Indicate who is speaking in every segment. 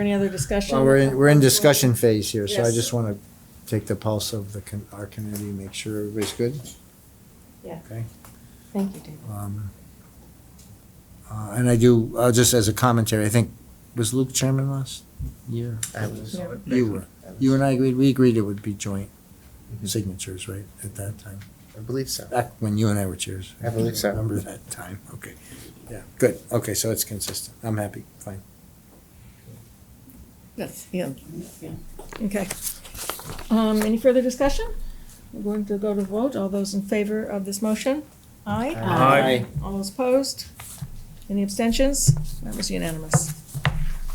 Speaker 1: Any other discussion?
Speaker 2: Well, we're, in- we're in discussion phase here, so I
Speaker 1: Yes.
Speaker 2: just want to take the pulse of the, con- our committee, make sure everybody's good.
Speaker 1: Yeah.
Speaker 2: Okay.
Speaker 1: Thank you, David.
Speaker 2: Um, uh, And I do, uh, just as a commentary, I think, was Luke chairman last year?
Speaker 3: I was.
Speaker 1: Yeah.
Speaker 2: You were. You and I agreed, we agreed it would be joint signatures, right, at that time?
Speaker 3: I believe so.
Speaker 2: Back when you and I were chairs.
Speaker 3: I believe so.
Speaker 2: Remember that time, okay. Yeah, good, okay, so it's consistent. I'm happy, fine.
Speaker 1: Yes, yeah. Okay. Um, any further discussion? We're going to go to vote. All those in favor of this motion? Aye.
Speaker 4: Aye.
Speaker 1: All those opposed? Any abstentions? That was unanimous.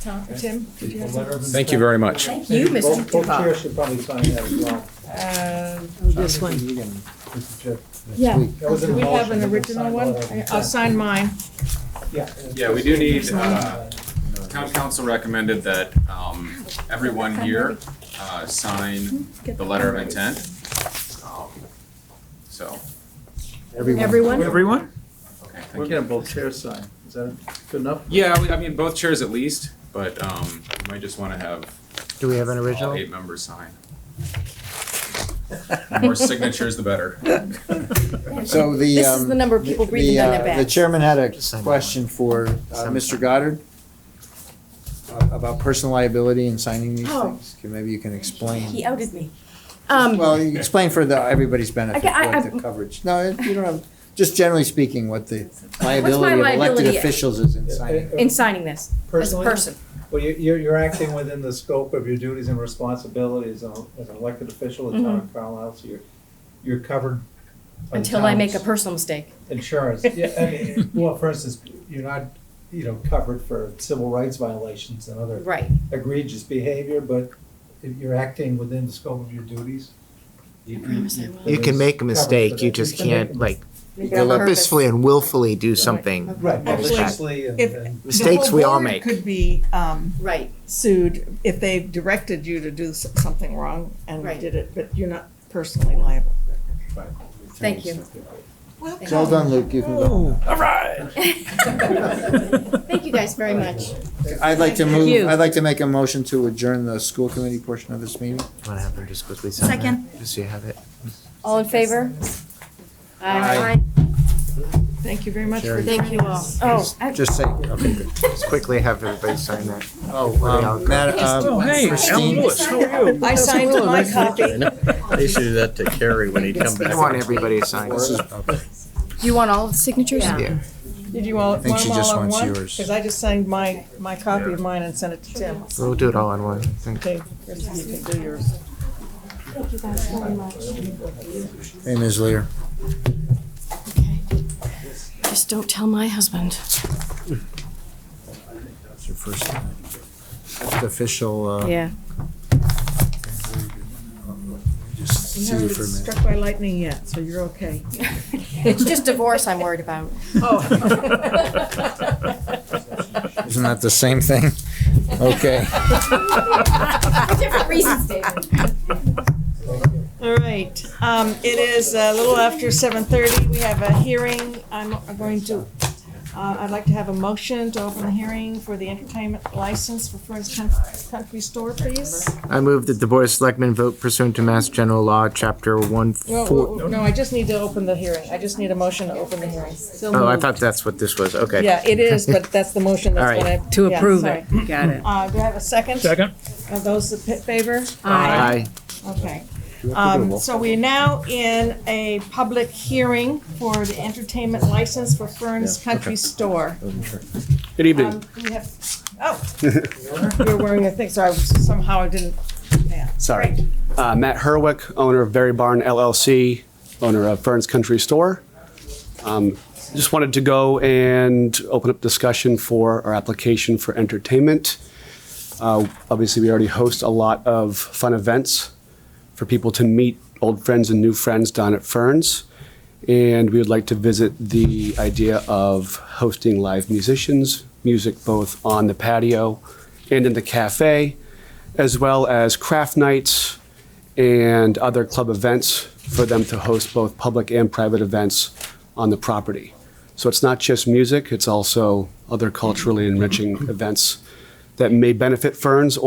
Speaker 1: Tom, Tim, did you have something?
Speaker 5: Thank you very much.
Speaker 6: Thank you, Mr.
Speaker 4: Both- Both
Speaker 6: Dubois.
Speaker 4: chairs should probably sign that as well.
Speaker 1: Uh,
Speaker 6: This one.
Speaker 4: Mr. Chair.
Speaker 1: Yeah.
Speaker 4: That was in
Speaker 1: Do we
Speaker 4: the
Speaker 1: have an
Speaker 4: motion.
Speaker 1: original
Speaker 4: Sign
Speaker 1: one?
Speaker 4: all of them.
Speaker 1: I- I'll sign mine.
Speaker 4: Yeah.
Speaker 5: Yeah, we do need, uh, town council recommended that, um, everyone here, uh, sign the letter of intent. Um, So,
Speaker 1: Everyone?
Speaker 4: Everyone?
Speaker 5: okay,
Speaker 4: We're
Speaker 5: thank you.
Speaker 4: getting both chairs signed. Is that good enough?
Speaker 5: Yeah, we- I mean, both chairs at least, but, um, you might just wanna have
Speaker 2: Do we have an
Speaker 5: all
Speaker 2: original?
Speaker 5: eight members sign. The More signatures, the better.
Speaker 2: So the.
Speaker 6: This is
Speaker 2: um,
Speaker 6: the number of people
Speaker 2: the,
Speaker 6: breathing down
Speaker 2: uh,
Speaker 6: their
Speaker 2: The
Speaker 6: back.
Speaker 2: chairman had a
Speaker 3: Just sign it.
Speaker 2: question for uh,
Speaker 3: Sign it.
Speaker 2: Mr. Goddard uh, about personal liability and signing these
Speaker 6: Oh.
Speaker 2: things. Can- Maybe you can
Speaker 6: He
Speaker 2: explain.
Speaker 6: outed me. Um,
Speaker 2: Well, you explain for the, everybody's benefit,
Speaker 6: Okay, I-
Speaker 2: what the
Speaker 6: I'm-
Speaker 2: coverage. No, it- you don't have, just generally speaking, what the liability of elected
Speaker 6: liability?
Speaker 2: officials is in
Speaker 4: Yeah,
Speaker 2: signing.
Speaker 4: uh,
Speaker 6: in signing this, as a
Speaker 4: personally,
Speaker 6: person.
Speaker 4: Well, you- you're, you're acting within the scope of your duties and responsibilities as an as an elected official of the town of Carlisle, so you're, you're covered. by the
Speaker 6: Until I make a
Speaker 4: town's
Speaker 6: personal mistake.
Speaker 4: Insurance, yeah, I mean, well, for instance, you're not, you know, covered for civil rights violations and other
Speaker 6: Right.
Speaker 4: egregious behavior, but if you're acting within the scope of your duties. You
Speaker 6: promise I will.
Speaker 3: You can make a
Speaker 4: Covered for
Speaker 3: mistake, you
Speaker 4: that.
Speaker 3: just
Speaker 4: can make a
Speaker 3: can't like
Speaker 6: Make it on purpose.
Speaker 3: purposefully and willfully do something.
Speaker 4: Right,
Speaker 1: Actually,
Speaker 4: maliciously and,
Speaker 7: if-
Speaker 4: and
Speaker 3: Mistakes we all make.
Speaker 7: The whole board could be um,
Speaker 6: Right,
Speaker 7: sued if they directed you to do s- something wrong and
Speaker 6: Right.
Speaker 7: did it, but you're not personally liable.
Speaker 6: thank you.
Speaker 2: It's all done, Luke, you can
Speaker 6: Oh.
Speaker 2: go.
Speaker 6: Thank you guys very much.
Speaker 2: I'd like to
Speaker 6: Thank you.
Speaker 2: move, I'd like to make a motion to adjourn the school committee portion of this meeting.
Speaker 3: Want to have them just quickly sign
Speaker 6: Second.
Speaker 3: that? Just so you have it.
Speaker 6: All in favor?
Speaker 2: Aye.
Speaker 1: Thank you very much for
Speaker 2: Sherry.
Speaker 6: Thank you all. Oh, I-
Speaker 2: Just say, okay, good.
Speaker 3: Just quickly have everybody sign that.
Speaker 2: Oh,
Speaker 3: Where they all
Speaker 2: um,
Speaker 3: go.
Speaker 2: Matt,
Speaker 4: Oh, hey,
Speaker 2: um,
Speaker 4: Al
Speaker 2: Christine,
Speaker 4: Lewis.
Speaker 7: I signed my copy.
Speaker 8: They should do that to Carrie when he comes
Speaker 3: I
Speaker 8: back.
Speaker 3: want everybody to sign.
Speaker 2: this is, okay.
Speaker 6: You want all the signatures?
Speaker 3: Yeah.
Speaker 7: Did you all,
Speaker 2: I think
Speaker 7: want
Speaker 2: she
Speaker 7: them all
Speaker 2: just
Speaker 7: on
Speaker 2: wants
Speaker 7: one?
Speaker 2: yours.
Speaker 7: Because I just signed my, my copy of mine and sent it to Tim.
Speaker 3: We'll do it all in one. Thank
Speaker 7: Okay, Chris, you can do yours.
Speaker 2: Hey, Ms. Lear.
Speaker 6: Just don't tell my husband.
Speaker 2: It's your first time. It's official, uh.
Speaker 6: Yeah.
Speaker 2: Just
Speaker 7: You
Speaker 2: see you
Speaker 7: haven't
Speaker 2: for a
Speaker 7: been
Speaker 2: minute.
Speaker 7: struck by lightning yet, so you're okay.
Speaker 6: It's just divorce I'm worried about.
Speaker 2: Isn't that the same thing? Okay.
Speaker 6: Different reasons, David.
Speaker 7: All right, um, it is a little after seven thirty, we have a hearing, I'm I'm going to, uh, I'd like to have a motion to open the hearing for the entertainment license for First Coun- Country Store, please.
Speaker 3: you. I move that the Board of Selectmen vote pursuant to Mass General Law, Chapter one
Speaker 7: No,
Speaker 3: four.
Speaker 7: no, I just need to open the hearing, I just need a motion to open the hearing.
Speaker 3: Oh, I thought that's what this was. Okay.
Speaker 7: Yeah, it is, but that's the motion that's
Speaker 3: All right.
Speaker 7: gonna. To approve it,
Speaker 9: Got it.
Speaker 7: Uh, do I have a second? Second. Are those in favor?
Speaker 3: Aye.
Speaker 7: Okay. Um, so we're now in a public hearing for the entertainment license for Fern's Country Store.
Speaker 8: Good
Speaker 7: Um, we have, oh, you're wearing a thing, so I was- somehow I didn't, yeah.
Speaker 10: Sorry. Uh, Matt Herwick, owner of Berry Barn LLC, owner of Fern's Country Store. Um, Just wanted to go and open up discussion for our application for entertainment. Uh, Obviously, we already host a lot of fun events for people to meet old friends and new friends down at Fern's. And we would like to visit the idea of hosting live musicians, music both on the patio and in the cafe as well as craft nights and other club events for them to host both public and private events on the property. So it's not just music, it's also other culturally enriching events that may benefit Ferns